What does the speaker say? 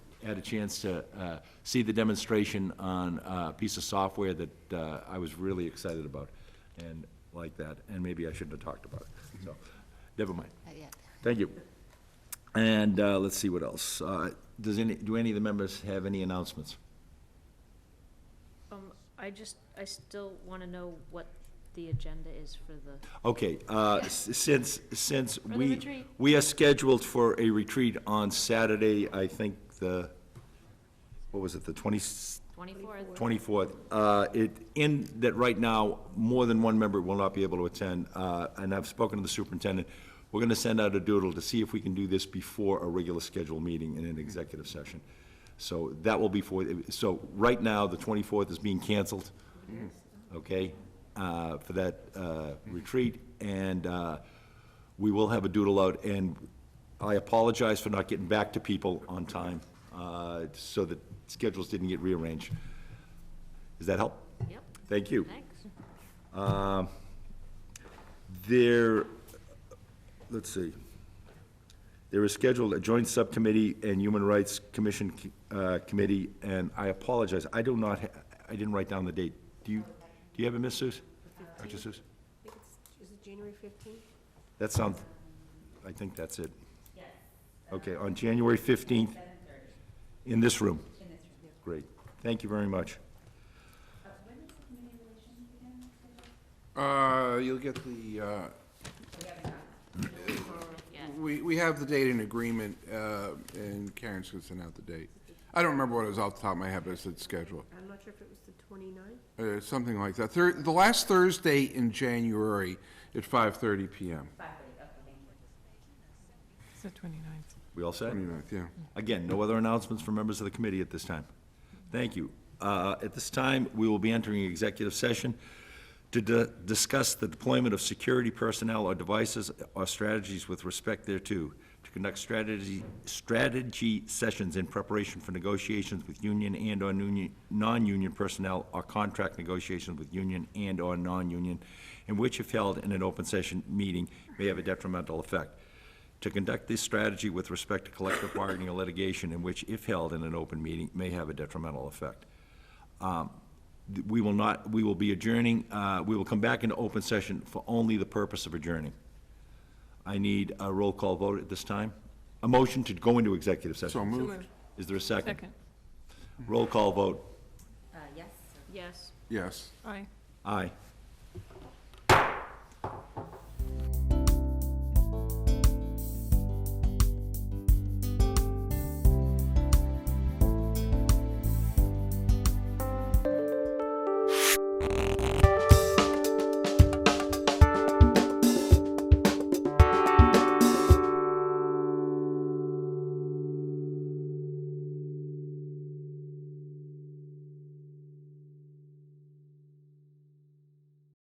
had a chance to uh, see the demonstration on a piece of software that uh, I was really excited about and like that, and maybe I shouldn't have talked about it, so, never mind. Not yet. Thank you. And uh, let's see what else. Uh, Does any, do any of the members have any announcements? Um, I just, I still wanna know what the agenda is for the, Okay, uh, s- since, since the we, retreat. we are scheduled for a retreat on Saturday, I think the, what was it, the 20, 24th? 24th. Uh, It, in that right now, more than one member will not be able to attend, uh, and I've spoken to the superintendent. We're going to send out a doodle to see if we can do this before a regular scheduled meeting in an executive session. So that will be for, so right now, the 24th is being canceled, okay, uh, for that uh, retreat. And uh, we will have a doodle out, and I apologize for not getting back to people on time, uh, so that schedules didn't get rearranged. Does that help? Yep, Thank you. thanks. There, let's see. There is scheduled a joint subcommittee and Human Rights Commission uh, Committee, and I apologize, I do not, ha- I didn't write down the date. Do you, do you have it, Miss Seuss? Dr. Seuss? I think it's, is it January fifteenth? That sounds, I think that's it. Okay, on January 15th? In this room? In this room. Great. Thank you very much. Uh, you'll get the, uh, we, we have the date in agreement, uh, and Karen's gonna send out the date. I don't remember what it was off the top of my head, but it's said schedule, I'm not sure if it was the twenty-ninth. uh, something like that. Thir- the last Thursday in January at five thirty PM. It's the 29th. We all set? 29th, yeah. Again, no other announcements from members of the committee at this time. Thank you. Uh, At this time, we will be entering executive session to di- discuss the deployment of security personnel or devices or strategies with respect thereto, to conduct strategy, strategy sessions in preparation for negotiations with union and/or union- non-union personnel or contract negotiations with union and/or non-union, in which if held in an open session meeting may have a detrimental effect to conduct this strategy with respect to collective bargaining or litigation in which, if held in an open meeting, may have a detrimental effect. Um, th- We will not, we will be adjourning, uh, we will come back into open session for only the purpose of adjourning. I need a roll call vote at this time. A motion to go into executive So session. moved, Is there a second? Second. Roll call vote. Uh, yes. Yes. yes. Aye. Aye.